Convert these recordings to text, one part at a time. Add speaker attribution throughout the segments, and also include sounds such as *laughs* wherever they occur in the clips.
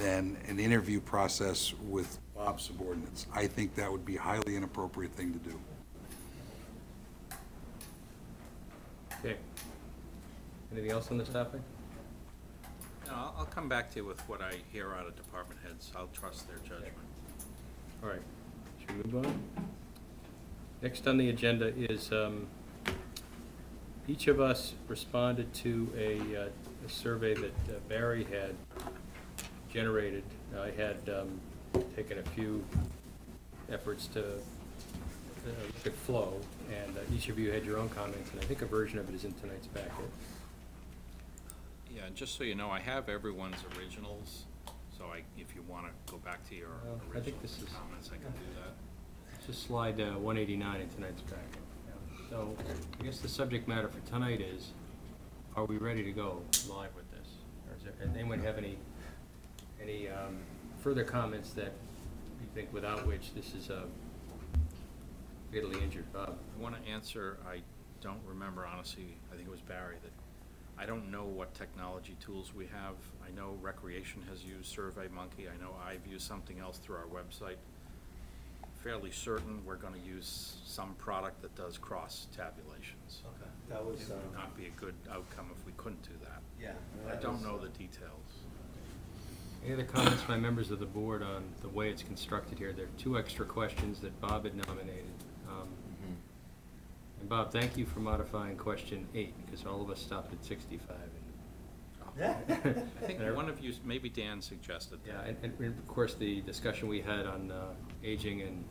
Speaker 1: than an interview process with Bob's subordinates. I think that would be a highly inappropriate thing to do.
Speaker 2: Okay. Anything else on this topic?
Speaker 3: No, I'll, I'll come back to you with what I hear out of department heads. I'll trust their judgment.
Speaker 2: All right, should we move on? Next on the agenda is, um, each of us responded to a, uh, a survey that uh, Barry had generated. I had, um, taken a few efforts to uh, look at flow, and uh, each of you had your own comments, and I think a version of it is in tonight's packet.
Speaker 3: Yeah, and just so you know, I have everyone's originals, so I, if you want to go back to your
Speaker 2: Well, I
Speaker 3: original
Speaker 2: think this is-
Speaker 3: comments, I can do that.
Speaker 2: Just slide uh, 189 in tonight's packet. So I guess the subject matter for tonight is, are we ready to go live with this? Or is there, and anyone have any, any um, further comments that you think without which this is uh, fatally injured? Bob?
Speaker 3: I want to answer, I don't remember honestly, I think it was Barry, that I don't know what technology tools we have. I know Recreation has used SurveyMonkey. I know I've used something else through our website. Fairly certain we're going to use some product that does cross tabulations.
Speaker 4: Okay, that was,
Speaker 3: It
Speaker 4: uh,
Speaker 3: would not be a good outcome if we couldn't do that.
Speaker 4: yeah.
Speaker 3: I
Speaker 4: that
Speaker 3: don't
Speaker 4: was,
Speaker 3: know
Speaker 4: uh,
Speaker 3: the details.
Speaker 2: Any other comments by members of the board on the way it's constructed here? There are two extra questions that Bob had nominated. Um, And Bob, thank you for modifying question eight, because all of us stopped at 65.
Speaker 4: Yeah.
Speaker 3: I think one of you, maybe Dan suggested
Speaker 2: Yeah,
Speaker 3: that.
Speaker 2: and, and of course, the discussion we had on uh, aging and,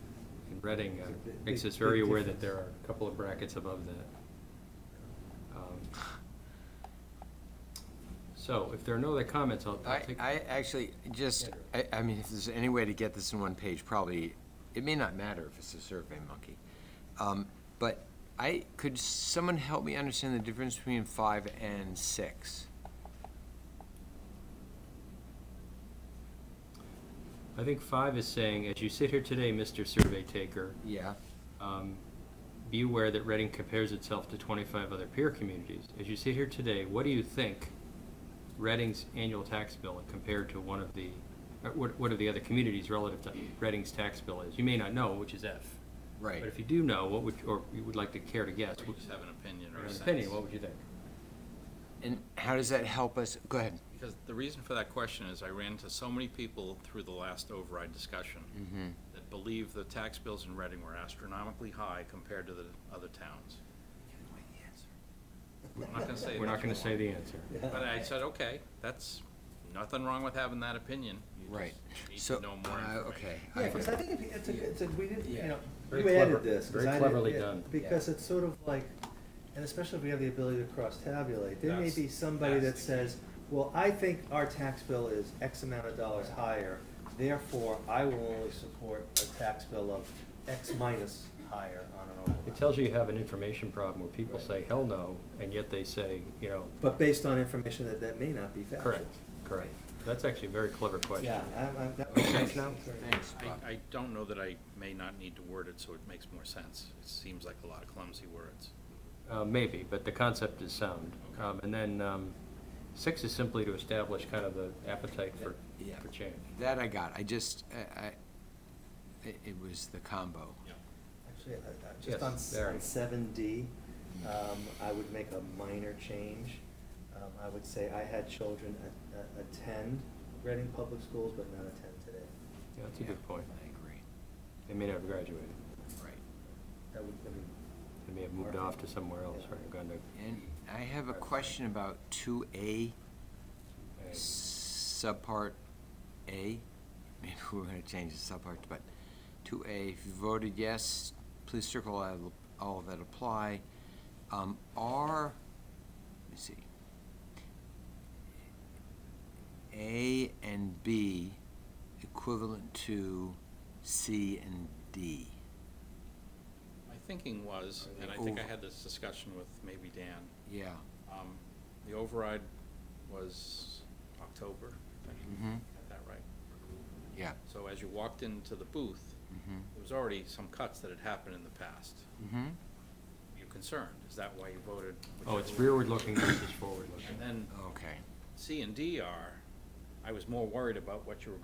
Speaker 2: and Reading uh,
Speaker 4: It's a big-
Speaker 2: makes us
Speaker 4: big-
Speaker 2: very
Speaker 4: big
Speaker 2: aware that there
Speaker 4: difference.
Speaker 2: are a couple of brackets above that. Um, So if there are no other comments, I'll, I'll
Speaker 5: I,
Speaker 2: take.
Speaker 5: I actually, just, I, I mean, if there's any way to get this in one page, probably, it may not matter if it's a survey monkey. Um, But I, could someone help me understand the difference between five and six?
Speaker 2: I think five is saying, as you sit here today, Mr. Survey Taker,
Speaker 5: Yeah,
Speaker 2: um, be aware that Reading compares itself to 25 other peer communities. As you sit here today, what do you think Reading's annual tax bill compared to one of the, uh, what, what are the other communities relative to Reading's tax bill is? You may not know, which is F.
Speaker 5: right.
Speaker 2: But if you do know, what would, or you would like to care to guess,
Speaker 3: We
Speaker 2: what-
Speaker 3: just have an opinion
Speaker 2: or
Speaker 3: or a
Speaker 2: an
Speaker 3: sense.
Speaker 2: opinion, what would you think?
Speaker 5: And how does that help us? Go ahead.
Speaker 3: Because the reason for that question is I ran into so many people through the last override discussion that believe the tax bills in Reading were astronomically high compared to the other towns. I'm not gonna say
Speaker 2: We're not
Speaker 3: which
Speaker 2: going to say
Speaker 3: one.
Speaker 2: the answer.
Speaker 3: But I said, okay, that's, nothing wrong with having that opinion. You
Speaker 5: Right.
Speaker 3: just Need
Speaker 5: So,
Speaker 3: to know more
Speaker 5: uh,
Speaker 3: information.
Speaker 5: okay.
Speaker 4: Yeah,
Speaker 5: I-
Speaker 4: because I think it- it's, a- it's, a- we didn't, you
Speaker 5: Yeah.
Speaker 4: know,
Speaker 2: Very
Speaker 4: you
Speaker 2: clever-
Speaker 4: added this. 'cause
Speaker 2: very
Speaker 4: I didn't-
Speaker 2: cleverly
Speaker 4: yeah,
Speaker 2: done.
Speaker 4: Because
Speaker 5: Yeah.
Speaker 4: it's sort of like, and especially if we have the ability to cross-tabulate, there may
Speaker 3: That's-
Speaker 4: be somebody that
Speaker 3: that's the key.
Speaker 4: says, well, I think our tax bill is X amount of dollars higher, therefore I will only support a tax bill of X minus higher on an override.
Speaker 2: It tells you you have an information problem where people say, hell no, and yet they say, you know,
Speaker 4: But based on information that, that may not be factual.
Speaker 2: correct, correct. That's actually a very clever question.
Speaker 4: Yeah, I, I, that makes
Speaker 5: Okay.
Speaker 4: sense now.
Speaker 5: Thanks,
Speaker 2: Uh,
Speaker 5: Bob.
Speaker 3: I, I don't know that I may not need to word it so it makes more sense. It seems like a lot of clumsy words.
Speaker 2: Uh, Maybe, but the concept is sound.
Speaker 3: Okay.
Speaker 2: Um, And then um, six is simply to establish kind of the appetite for,
Speaker 5: Yeah.
Speaker 2: for change.
Speaker 5: That I got. I just, I, I, it- it was the combo.
Speaker 4: Actually, I- I-
Speaker 2: Yes,
Speaker 4: just on s-
Speaker 2: Barry.
Speaker 4: on seven D, um, I would make a minor change. Um, I would say I had children a- a- attend Reading Public Schools, but not attend today.
Speaker 2: Yeah, that's a good
Speaker 5: Yeah,
Speaker 2: point.
Speaker 5: I agree.
Speaker 2: They may not have graduated.
Speaker 5: Right.
Speaker 4: That would, I mean,
Speaker 2: They may have moved off to somewhere else or gone to.
Speaker 5: And I have a question about two A. subpart A, maybe *laughs* we're gonna change the subpart, but to A, if you voted yes, please circle all- all that apply. Um, R, let me see. A and B equivalent to C and D.
Speaker 3: My thinking was, and I think I had this discussion with maybe Dan,
Speaker 5: Yeah,
Speaker 3: um, the override was October, I think,
Speaker 2: Mm-hmm.
Speaker 5: Mhm.
Speaker 3: got that right?
Speaker 5: yeah.
Speaker 3: So as you walked into the booth,
Speaker 5: Mhm.
Speaker 3: there was already some cuts that had happened in the past.
Speaker 5: Mm-hmm.
Speaker 3: You're concerned, is that why you voted?
Speaker 2: Oh, it's
Speaker 3: whichever way?
Speaker 2: rearward looking versus forward
Speaker 3: And
Speaker 2: looking.
Speaker 3: then
Speaker 5: Okay.
Speaker 3: C and D are, I was more worried about what you were going